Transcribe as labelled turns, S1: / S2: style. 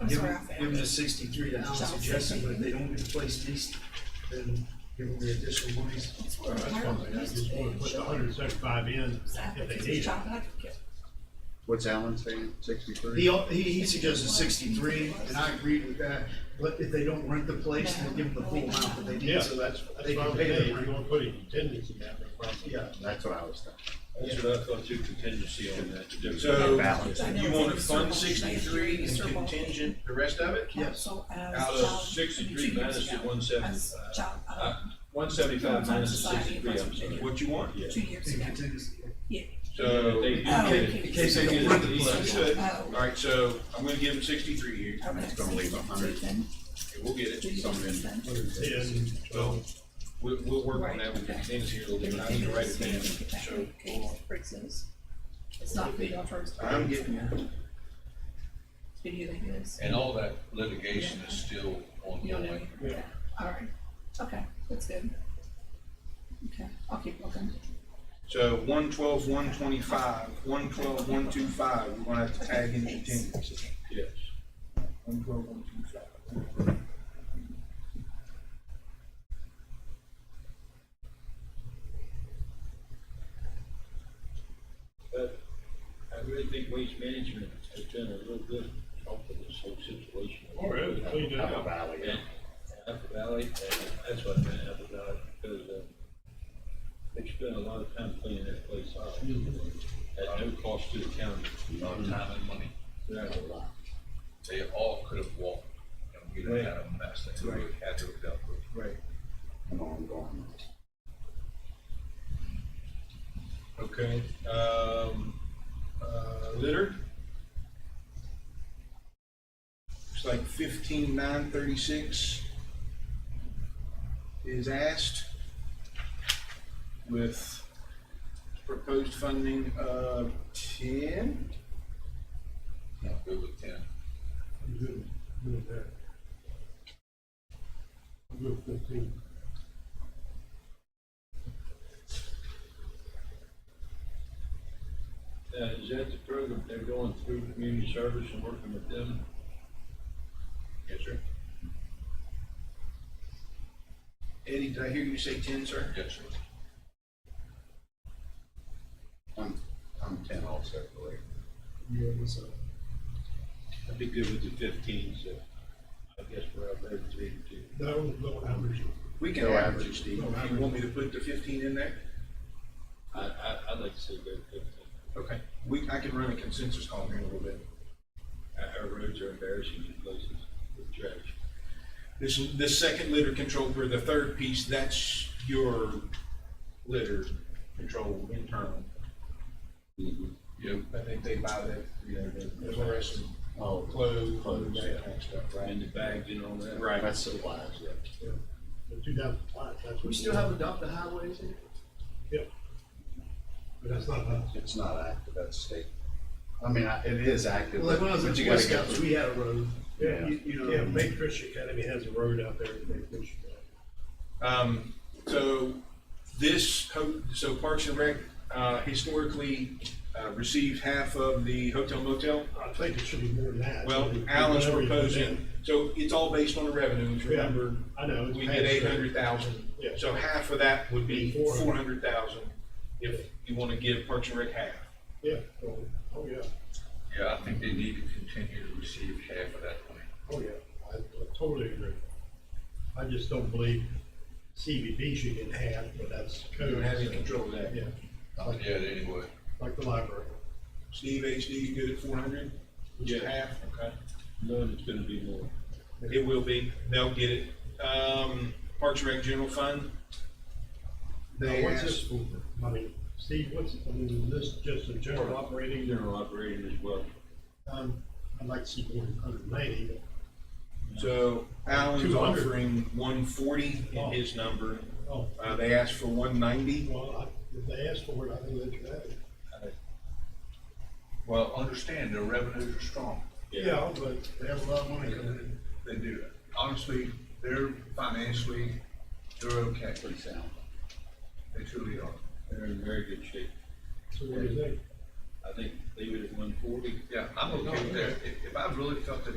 S1: I'm
S2: Give
S1: sorry,
S2: them, give
S1: I
S2: them
S1: found
S2: the
S1: it.
S2: sixty-three that I'm
S1: Sounds
S2: suggesting, but if they
S1: sixty.
S2: don't replace these, then give them the additional monies.
S1: That's where
S3: That's
S1: it's
S3: fine, I just wanna put the hundred and seventy-five in if they need it.
S4: What's Alan saying, sixty-three?
S2: He, he, he suggested sixty-three, and I agreed with that, but if they don't rent the place, then give them the full amount that they
S3: Yeah,
S2: need, so
S3: that's,
S2: that's,
S3: that's
S2: they can
S3: what I'm
S2: pay
S3: saying,
S2: the
S3: if
S2: rent.
S3: you wanna put a contingency in that, no problem.
S2: Yeah,
S4: That's what I was thinking.
S5: That's what I thought too, contingency on that.
S6: So,
S4: Balance.
S6: you wanna fund sixty-three and contingent the rest of it?
S2: yes.
S1: uh,
S6: Out of sixty-three minus the one seventy-five.
S1: uh,
S6: Uh,
S5: One seventy-five minus the sixty-three, I'm sorry.
S6: What you want?
S5: Yeah.
S1: Two years
S2: And
S1: ago.
S2: contingency.
S6: So,
S5: They do
S1: Oh,
S5: get it.
S1: okay.
S2: In case they don't rent the place.
S6: understood.
S1: Oh.
S6: Alright, so I'm gonna give them sixty-three here,
S1: Okay.
S4: It's gonna leave a hundred.
S1: Then
S6: and we'll get
S1: two
S6: it.
S1: years then.
S3: Ten, twelve,
S6: We'll, we'll work on that with the contingency a little bit, I need to write it down, so. hold on.
S1: It's not good on first.
S6: I'm getting there.
S1: Video they use.
S5: And all that litigation is still
S1: You don't know.
S5: ongoing.
S1: Yeah. All right. Okay, that's good. Okay, I'll keep looking.
S6: So one twelve, one twenty-five, one twelve, one two five, we're gonna have to tag in contingency.
S5: Yes.
S6: One twelve, one two five.
S5: But I really think waste management has done a real good help with this whole situation.
S3: all right, we cleaned it
S4: Apple
S3: up.
S4: Valley.
S5: Yeah, Apple Valley, and that's what I meant, Apple Valley, because, uh, they spend a lot of time cleaning that place out. At no cost to the county.
S7: a lot of time and money.
S5: Right.
S7: They all could have walked and we would have had a mess that we would have had to have dealt with.
S6: Right.
S4: And ongoing.
S6: Okay, um, uh, litter. Looks like fifteen nine thirty-six is asked with proposed funding of ten.
S7: No, good with ten.
S3: I'm Good, good with that. I'm Good with fifteen.
S5: Now, is that the program they're going through community service and working with them?
S6: Yes, sir. Eddie, did I hear you say ten, sir?
S7: Yes, sir.
S4: I'm, I'm ten also, I believe.
S2: Yeah, so,
S5: I'd be good with the fifteen, so I guess we're out there three and two.
S3: No, no, average.
S6: We can
S4: No
S6: average it,
S4: average.
S6: Steve.
S3: No
S6: You want me to put the fifteen in there?
S5: I, I, I'd like to see that fifteen.
S6: Okay, we, I can run a consensus call here in a little bit.
S5: Our, our roads are embarrassing in places with trash.
S6: This, this second litter control, or the third piece, that's your litter control internal.
S7: Yep.
S6: I think they buy that, you know, the fluorescent
S4: Oh,
S6: clothes,
S4: Clothes,
S6: and that kind of stuff,
S5: And the
S6: right?
S5: bags and all that.
S6: Right.
S4: that's supplies, yeah.
S3: Two thousand five, that's what.
S2: we still have adopted highways in it?
S3: Yep. But that's not us.
S4: It's not active, that's state. I mean, I- it is active,
S2: Well, like
S4: but
S2: when I was
S4: but
S2: in
S4: you
S2: Boy
S4: gotta go
S2: Scouts, we had a road.
S3: Yeah,
S2: You- you know-
S3: yeah, Bay Christian Academy has a road out there, Bay Christian.
S6: Um, so this, ho- so Parks and Rec, uh, historically, uh, received half of the hotel motel.
S3: I think it should be more than that.
S6: Well,
S3: Whatever you
S6: Alan's
S3: put in.
S6: proposing, so it's all based on the revenues,
S3: Yeah,
S6: remember?
S3: I know. it's
S6: We
S3: passed,
S6: did eight hundred thousand,
S3: Yeah.
S6: so half of that would be
S3: Four
S6: four hundred thousand if you wanna give Parks and Rec half.
S3: Yeah, oh, oh, yeah,
S7: Yeah, I think they need to continue to receive half of that money.
S3: oh, yeah, I I totally agree. I just don't believe CBB should get half, but that's.
S6: You don't
S3: code,
S6: have any
S3: so,
S6: control of that.
S3: Yeah,
S7: Not yet, anyway.
S3: like the library.
S6: Steve HD, you good at four hundred?
S5: Yeah.
S6: Half, okay.
S5: Knowing it's gonna be more.
S6: It will be, they'll get it. Um, Parks and Rec General Fund. They
S3: Now, what's
S6: asked-
S3: this for? I mean, Steve, what's, I mean, is this just a general operating,
S5: General operating as well.
S3: um, I'd like to see more than hundred and ninety,
S6: So Alan's
S3: 200.
S6: offering one forty in his number.
S3: but, oh,
S6: Uh, they asked for one ninety.
S3: well, I, if they ask for it, I think they should have it.
S7: Well, understand their revenues are strong.
S3: Yeah, but they have a lot of money coming in.
S7: They do. Honestly, they're financially, they're okay.
S4: pretty sound.
S7: They truly are.
S5: They're in very good shape.
S3: So what do you think?
S5: I think leave it at one forty.
S7: Yeah, I'm okay with that. If, if I really felt that